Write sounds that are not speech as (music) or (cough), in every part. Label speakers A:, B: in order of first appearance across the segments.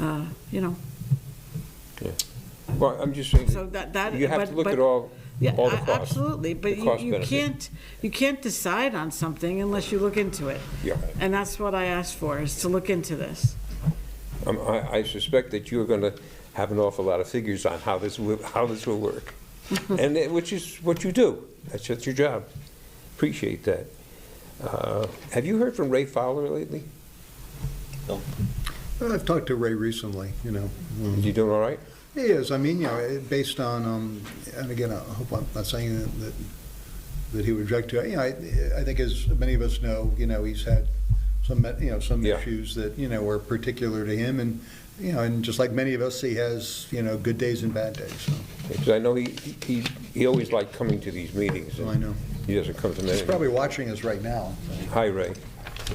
A: uh, you know,
B: Well, I'm just saying,
A: so that, that.
B: you have to
A: but-
B: look
A: but-
B: at all,
A: Yeah,
B: all the
A: a-
B: costs.
A: Absolutely,
B: the
A: but you,
B: cost
A: you
B: benefit.
A: can't, you can't decide on something unless you look into it.
B: Yeah.
A: And that's what I asked for, is to look into this.
B: Um, I I suspect that you're going to have an awful lot of figures on how this, will- how this will work, and it- which is what you do. That's just your job. Appreciate that. Uh, Have you heard from Ray Fowler lately?
C: Well, I've talked to Ray recently, you know.
B: Is he doing all right?
C: He is, I mean, you know, it- based on, um, and again, I hope I'm not saying that, that he would object to, it. you know, I, I think as many of us know, you know, he's had some, you know, some
B: Yeah.
C: issues that, you know, are particular to him, and, you know, and just like many of us, he has, you know, good days and bad days, so,
B: Because I know he, he, he always liked coming to these meetings.
C: so Oh, I know.
B: He doesn't come to many.
C: He's probably watching us right now.
B: Hi, Ray.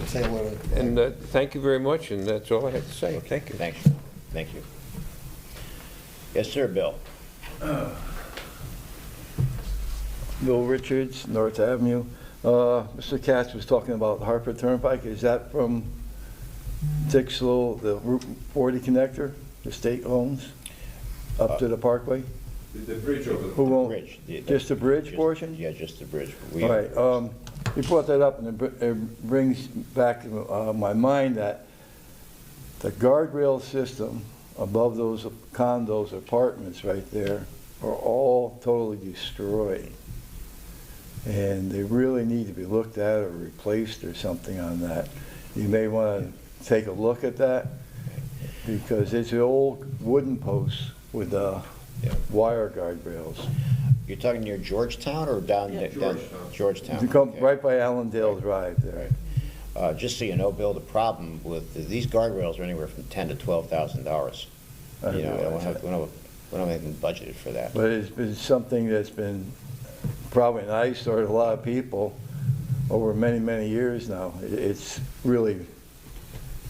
C: Say hello to-
B: And uh, thank you very much, and that's all I have to say. Thank you.
D: Thanks, thank you. Yes, sir, Bill.
E: (clears throat) Bill Richards, North Avenue. Uh, Mr. Katz was talking about Harper Turnpike. Is that from Dixlow, the Route 40 connector, the state owns, up to the Parkway?
F: The bridge over
E: Who owns?
D: Bridge, Uh, the-
E: Just the bridge
D: just-
E: portion?
D: Yeah, just the bridge. We-
E: All right, um, you brought that up, and it br- it brings back to uh, my mind that the guardrail system above those condos, apartments right there, are all totally destroyed. And they really need to be looked at or replaced or something on that. You may want to take a look at that, because it's the old wooden posts with uh,
D: Yeah.
E: wire guardrails.
D: You're talking near Georgetown or down?
A: Yeah.
D: down- Georgetown.
E: You come
D: okay.
E: right by Allendale Drive there.
D: Uh, Just so you know, Bill, the problem with, these guardrails are anywhere from ten to twelve thousand dollars.
E: I
D: You know,
E: realize
D: and we
E: that.
D: don't, we don't- we don't even budgeted for that.
E: But it's been something that's been probably an eyesore to a lot of people over many, many years now. It- It's really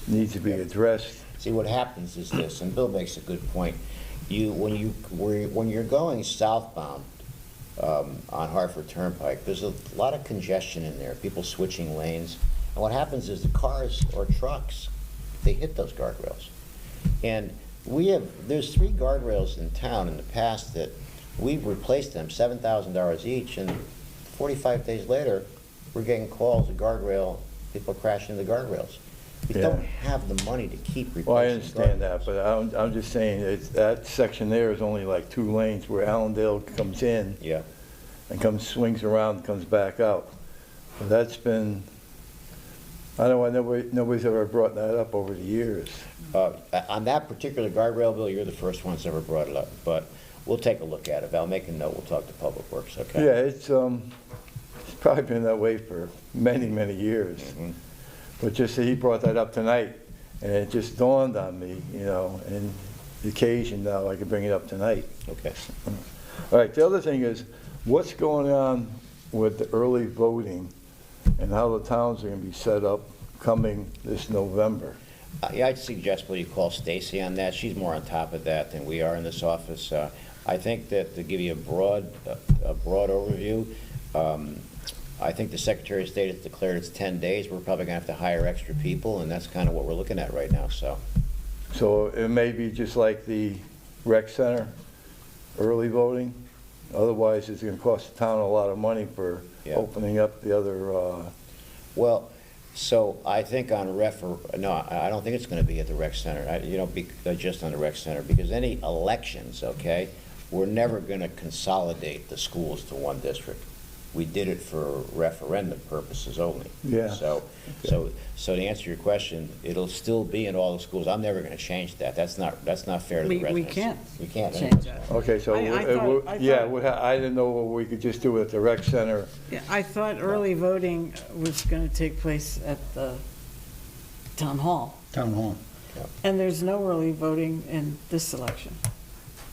E: needs to be addressed.
D: See, what happens is this, and Bill makes a good point. You, when you, where- when you're going southbound um, on Hartford Turnpike, there's a lot of congestion in there, people switching lanes. And what happens is the cars or trucks, they hit those guardrails. And we have, there's three guardrails in town in the past that we've replaced them, seven thousand dollars each, and forty-five days later, we're getting calls, the guardrail, people crashing into the guardrails. We
E: Yeah.
D: don't have the money to keep replacing.
E: Well, I understand
D: guardrails.
E: that, but I'm, I'm just saying it's, that section there is only like two lanes where Allendale comes in
D: Yeah,
E: and comes, swings around, and comes back out. But that's been, I don't know, why nobody, nobody's ever brought that up over the years.
D: Uh, on that particular guardrail bill, you're the first ones ever brought it up, but we'll take a look at it. I'll make a note, we'll talk to Public Works, okay?
E: Yeah, it's, um, it's probably been that way for many, many years.
D: Mhm.
E: But just that he brought that up tonight, and it just dawned on me, you know, and the occasion now, I could bring it up tonight.
D: Okay.
E: All right, the other thing is, what's going on with the early voting and how the towns are gonna be set up coming this November?
D: Uh, Yeah, I'd suggest, well, you call Stacy on that. She's more on top of that than we are in this office. Uh, I think that to give you a broad, a broad overview, um, I think the Secretary of State has declared it's 10 days. We're probably going to have to hire extra people, and that's kind of what we're looking at right now, so.
E: So it may be just like the rec center, early voting. Otherwise, it's gonna cost the town a lot of money for
D: Yeah.
E: opening up the other, uh,
D: Well, so I think on refer, no, I I don't think it's going to be at the rec center, I- you know, bec- uh, just on the rec center, because any elections, okay, we're never going to consolidate the schools to one district. We did it for referendum purposes only.
E: Yeah.
D: So, so, so to answer your question, it'll still be in all the schools. I'm never going to change that. That's not, that's not fair to the
A: We, we
D: residents.
A: can't
D: We can't.
A: change that.
E: Okay, so,
A: I- I
E: it
A: thought-
E: would-
A: I
E: yeah,
A: thought-
E: we ha- I didn't know what we could just do at the rec center.
A: Yeah, I thought early voting was going to take place at the town hall,
C: Town hall.
A: and there's no early voting in this election.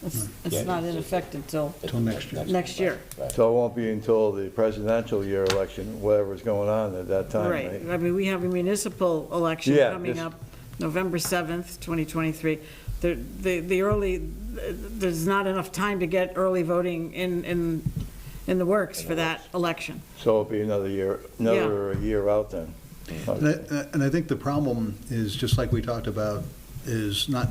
A: It's,
D: Yeah.
A: it's not in effect until,
C: Till next year.
A: Next year.
D: Right.
E: So it won't be until the presidential year election, whatever's going on at that time,
A: right,
E: right?
A: I mean, we have a municipal election
E: Yeah,
A: coming
E: this-
A: up, November 7th, 2023. The, the the early, there's not enough time to get early voting in, in, in the works for that election.
E: So it'll be another year, another year out then.
C: And I- and I think the problem is, just like we talked about, is not